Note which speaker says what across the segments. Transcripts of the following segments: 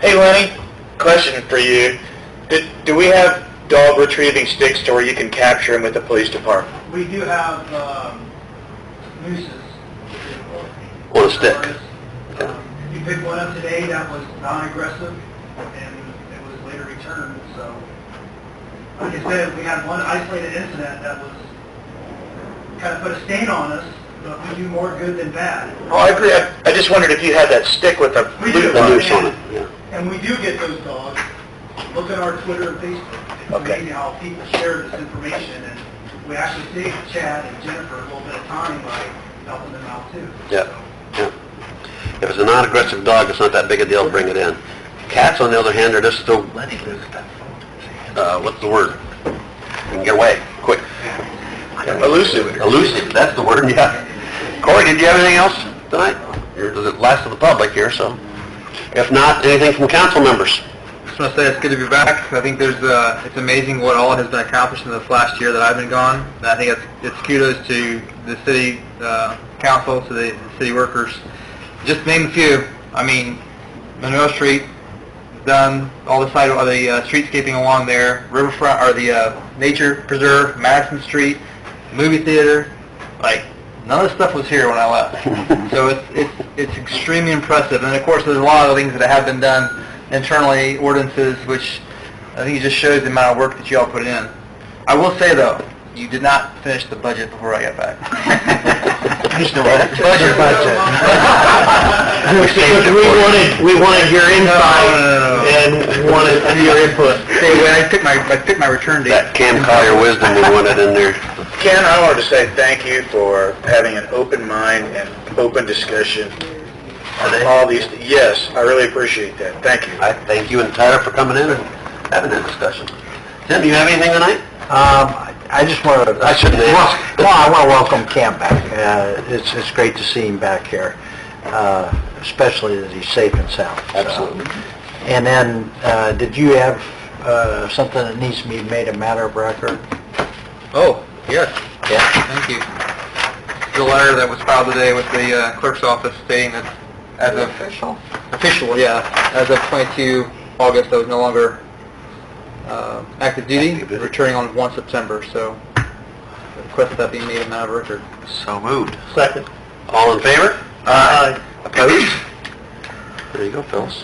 Speaker 1: Hey Lenny, question for you. Do, do we have dog retrieving sticks to where you can capture them with the police department?
Speaker 2: We do have um, nooses.
Speaker 3: Or a stick.
Speaker 2: Um, You picked one up today that was non-aggressive, and it was later returned, so. Like I said, we had one isolated incident that was, kind of put a stain on us, but we do more good than bad.
Speaker 1: Oh, I agree. I, I just wondered if you had that stick with a
Speaker 2: We
Speaker 1: loop
Speaker 2: do.
Speaker 1: on
Speaker 3: The
Speaker 1: it.
Speaker 3: noose on it, yeah.
Speaker 2: And we do get those dogs. Look at our Twitter and Facebook. It's
Speaker 1: Okay.
Speaker 2: amazing how people share this information, and we actually save Chad and Jennifer a little bit of time by helping them out too.
Speaker 3: Yeah, yeah. If it's a non-aggressive dog, it's not that big a deal, bring it in. Cats, on the other hand, are just still, uh, what's the word? Can Get away, quick.
Speaker 1: Elusive.
Speaker 3: Elusive, that's the word, yeah. Corey, did you have anything else tonight? Or is it last of the public here, so? If not, anything from council members?
Speaker 4: Just want to say it's good to be back. I think there's uh, it's amazing what all has been accomplished in this last year that I've been gone. And I think it's, it's kudos to the city uh, council, to the, the city workers. Just to name a few. I mean, Monroe Street is done. All the side, all the uh, streetscaping along there, riverfront, or the uh, nature preserve, Madison Street, movie theater. Like none of this stuff was here when I left. so it's it's it's extremely impressive. And of course, there's a lot of things that have been done internally, ordinances, which I think it just shows the amount of work that you all put in. I will say though, you did not finish the budget before I got back.
Speaker 3: There's no budget.
Speaker 4: Budget, budget.
Speaker 3: We saved it for you.
Speaker 1: we wanted your
Speaker 4: No, no, no, no.
Speaker 1: and wanted your input.
Speaker 4: Hey, when I took my I took my return date.
Speaker 3: That Cam Collier wisdom we wanted in there.
Speaker 1: Ken, I wanted to say thank you for having an open mind and open discussion on all these. Yes, I really appreciate that. Thank you.
Speaker 3: I thank you and Tyler for coming in and having that discussion. Tim, do you have anything tonight?
Speaker 5: Um, I just want to,
Speaker 3: I shouldn't ask.
Speaker 5: well, I want to welcome Cam back. Uh, It's, it's great to see him back here, uh, especially that he's safe and sound. so. And then, uh, did you have uh, something that needs to be made a matter of record?
Speaker 4: Oh, yes.
Speaker 5: Yeah.
Speaker 4: Thank you. The letter that was filed today with the uh, clerk's office stating that as of... Official? Official, yeah. As of 22 August, I was no longer uh, active duty,
Speaker 3: Active duty.
Speaker 4: returning on 1 September, so request that be made a matter of record.
Speaker 3: So moved.
Speaker 1: Second.
Speaker 3: All in favor?
Speaker 1: Aye.
Speaker 3: Opposed? There you go, Phyllis.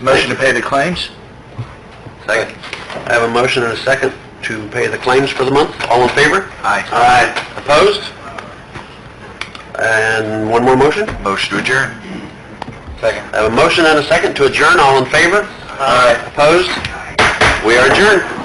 Speaker 1: Motion to pay the claims?
Speaker 3: Second. I have a motion and a second to pay the claims for the month. All in favor?
Speaker 1: Aye.
Speaker 3: Aye. Opposed? And one more motion?
Speaker 1: Motion to adjourn.
Speaker 3: Second. I have a motion and a second to adjourn. All in favor? Aye. Opposed? We are adjourned.